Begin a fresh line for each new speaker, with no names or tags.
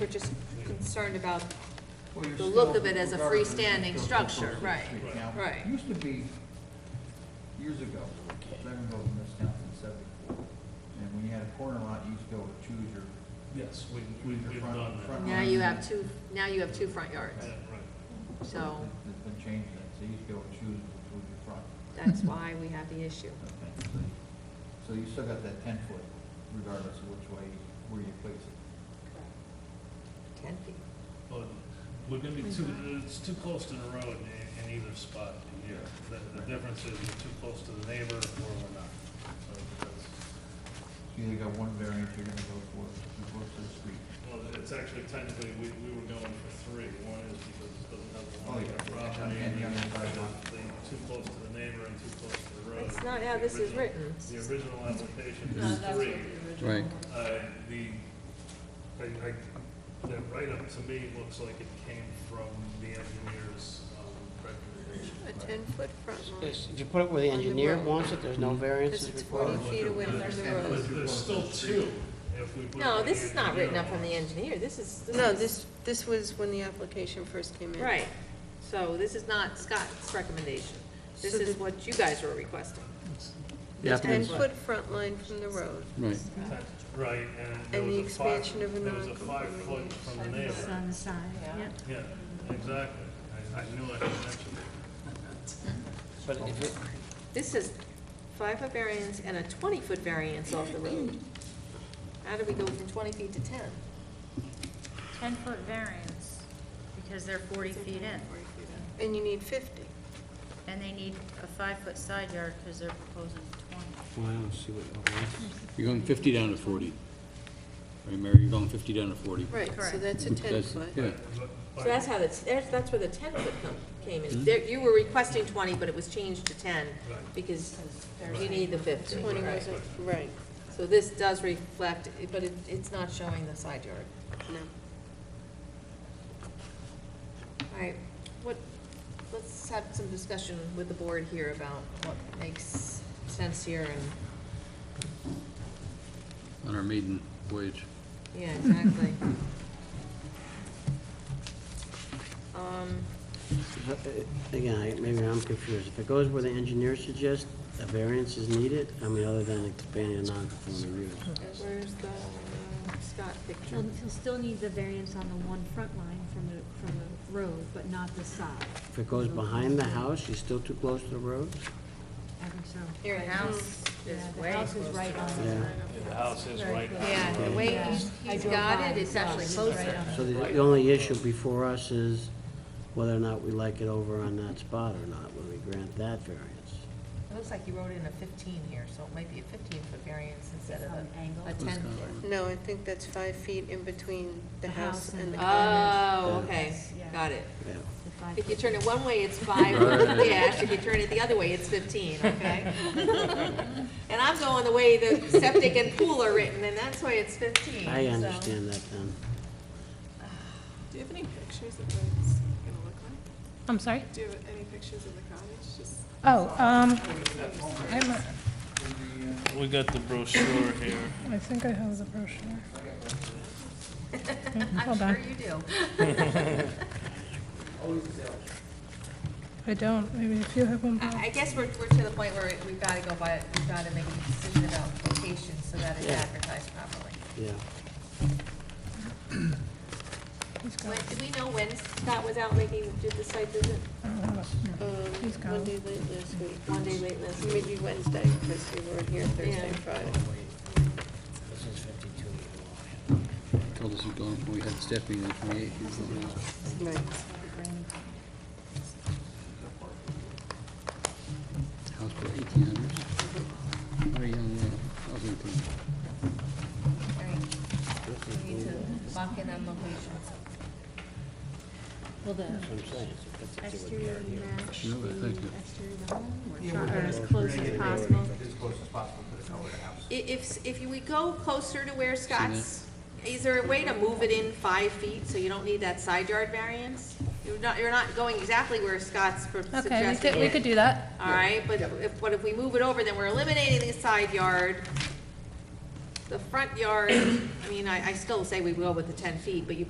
We're just concerned about,
Well, you're
The look
still-
of it as a
regardless,
freestanding
you're still
structure,
proposing
right,
street. Now,
right.
it Used to be, years ago, seven goes in this town since seventy-four, and when you had a corner lot, you used to go with choose your,
Yes, we, we- we've
Front-
done that.
front-
now you have two, now you have two front yards,
Yeah, right.
so
it's been changed, then, so you used to go with choose between your front.
that's why we have the issue.
okay, so you- So you still got that ten foot regardless of which way, where you place it.
Ten feet.
But we're gonna be too, it's too close to the road in, in either spot here. The, the difference is we're too close to the neighbor or we're not. So that's,
So you either got one variance you're gonna go for, you go to the street.
well, it's actually technically, we, we were going for three. One is because it doesn't have the
Oh,
line
yeah.
of property.
And
and
you're gonna
it's
buy one.
the- Too close to the neighbor and too close to the road.
That's not how this is
The original-
written.
The original application is three.
Right.
Uh, The, I, I, that write-up to me looks like it came from the engineer's um, recommendation.
A ten-foot front line,
Yes, If you put it where the
On the
engineer
road.
wants it, there's no
because
variances
it's
required.
forty feet away from the road.
But there's still two if we put.
No,
what
this
the
is not written
engineer
up from the
wants.
engineer, this is.
No,
is-
this, this was when the application first came in.
Right, so this is not Scott's recommendation, this
So
is
the-
what you guys were requesting.
Yeah,
The
I think-
ten-foot front line from the road.
Right,
Right, and there
And
was
the
a five,
expansion of a
there was a
non-conforming
five-foot
use.
from the neighbor.
on the side, yeah.
Yeah, exactly. I, I knew I had mentioned it.
But if it,
This is five-foot variance and a twenty-foot variance off the road. How do we go from twenty feet to ten?
Ten-foot variance, because they're forty feet in,
And you need fifty.
and they need a five-foot side yard, because they're proposing twenty.
well, I don't see what, oh, what- you're going fifty down to forty. Right, Mary, you're going fifty down to forty.
Right, so
Correct.
that's a
That's-
ten-foot.
Yeah,
But-
So that's how that's, that's that's where the ten foot come, came in. There, you were requesting twenty, but it was changed to ten
Right.
because you need the fifty.
Twenty
Right.
wasn't, right,
So this does reflect, but it, it's not showing the side yard.
no.
All right, what, let's have some discussion with the board here about what makes sense here and,
on our maiden voyage.
yeah, exactly. Um,
Uh, again, I- maybe I'm confused. If it goes where the engineer suggests, a variance is needed, I mean, other than expanding a non-conforming use.
where's the uh, Scott picture?
You'll you'll still need the variance on the one front line from the, from the road, but not the side.
If it goes behind the house, you're still too close to the road?
I think so.
Here, the house is
Yeah,
way
The house is right on the
Yeah.
side.
The house is right.
Yeah, the way he's,
I
he's
drove
got it,
by.
it's actually
It's
closer.
right on.
So the the only issue before us is whether or not we like it over on that spot or not, when we grant that variance.
It looks like you wrote in a fifteen here, so it might be a fifteen foot variance instead of
Some angle.
a, a ten foot.
No, I think that's five feet in between the house and the common.
Oh, okay,
Yeah.
got it.
Yeah.
The five
If you
feet.
turn it one way, it's five,
Right.
yeah, if you turn it the other way, it's fifteen, okay? And I'm going the way the septic and pool are written, and that's why it's fifteen.
I
so-
understand that then.
Do you have any pictures of what it's gonna look like?
I'm sorry?
Do you have any pictures of the cottage? Just
Oh, um, I'm,
We got the brochure here.
I think I have the brochure.
I'm
Hold
sure
on.
you do.
I don't, maybe if you have one. Bob.
I, I guess we're, we're to the point where we've gotta go by, we've gotta make a decision about location so that it's
Yeah.
advertised properly.
Yeah.
He's
When,
got it.
do we know when Scott was out making, did the site visit?
I don't have it.
Um,
He's gone.
one day late last week.
One day late last week.
Maybe Wednesday, because we weren't here Thursday,
Yeah.
Friday.
This is 52
Told us we'd gone, we had staff meeting on the twenty-eighth.
Right.
House for eighteen hundreds. Very young, uh, housing thing.
Right. We need to lock in on locations.
Will the
That's what I'm saying. It's 52 with the idea.
exterior match the
No, but thank you.
exterior of the home,
Yeah,
or
we're
or
gonna-
as
we're
close
gonna get it
as possible?
As close as possible to the color of the house.
I- If, if we go closer to where Scott's, is there a way to move it in five feet so you don't need that side yard variance? You're not, you're not going exactly where Scott's pro-
Okay, we
suggesting
could, we could
it.
do that.
All right, but if, but if we move it over, then we're eliminating the side yard. The front yard, I mean, I, I still say we go with the ten feet, but you